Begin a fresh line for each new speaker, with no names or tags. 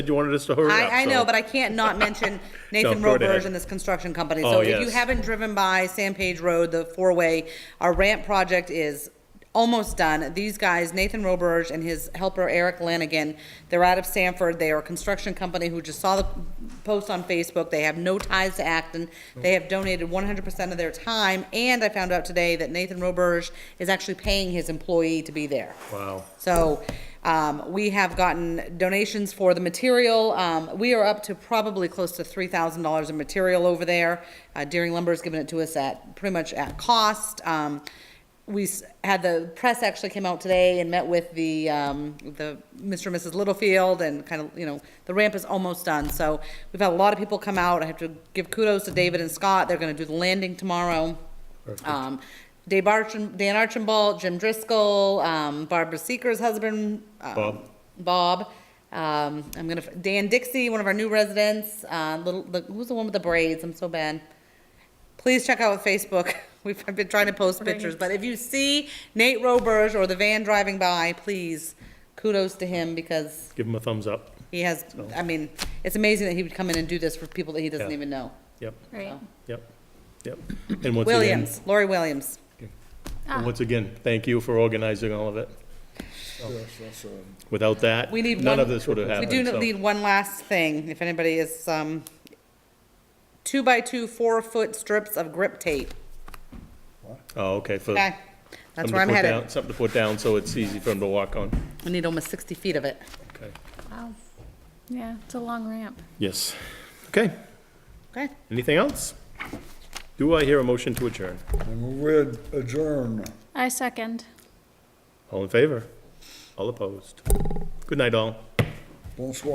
You wanted us to hurry up.
I, I know,
so-
but I can't not mention Nathan
go right
Roberge
ahead.
and this construction company. So
Oh,
if you
yes.
haven't driven by Sandpage Road, the four-way, our ramp project is almost done. These guys, Nathan Roberge and his helper Eric Lanigan, they're out of Sanford. They are a construction company who just saw the post on Facebook. They have no ties to Acton. They have donated one hundred percent of their time. And I found out today that Nathan Roberge is actually paying his employee to be there.
Wow.
So um, we have gotten donations for the material. Um, We are up to probably close to $3,000 in material over there. Uh, Deering Lumber's given it to us at, pretty much at cost. Um, We s- had the, press actually came out today and met with the, um, the Mr. and Mrs. Littlefield and kind of, you know, the ramp is almost done. So we've had a lot of people come out. I have to give kudos to David and Scott. They're going to do the landing tomorrow. Um, Dave Archim, Dan Archibald, Jim Driscoll, um, Barbara Seeker's husband, uh,
Bob.
Bob. Um, I'm gonna f- Dan Dixie, one of our new residents. Uh, little, the, who's the one with the braids? I'm so bad. Please check out Facebook. We've I've been trying to post pictures, but if you see Nate Roberge or the van driving by, please kudos to him because
Give him a thumbs up.
he has. I mean, it's amazing that he would come in and do this for people that he doesn't
Oh. Yeah.
even know.
Yep,
Right.
yep, yep. And once again,
Williams, Lori Williams.
and once again, thank you for organizing all of it. Without that,
We need
none
one-
of this would have
We
happened.
do
so-
need one last thing, if anybody is, um, two by two, four foot strips of grip
Uh,
tape,
Oh, okay, for.
okay? That's
something
where
to put
I'm
down-
headed.
Something to put down so it's easy for him to walk on.
We need almost sixty feet of it.
Okay.
Wow. Yeah, it's a long ramp.
Yes. Okay,
Okay,
anything else? Do I hear a motion to adjourn?
And we'd adjourn.
I second.
All in favor? All opposed? Good night, all.
Bonsoir.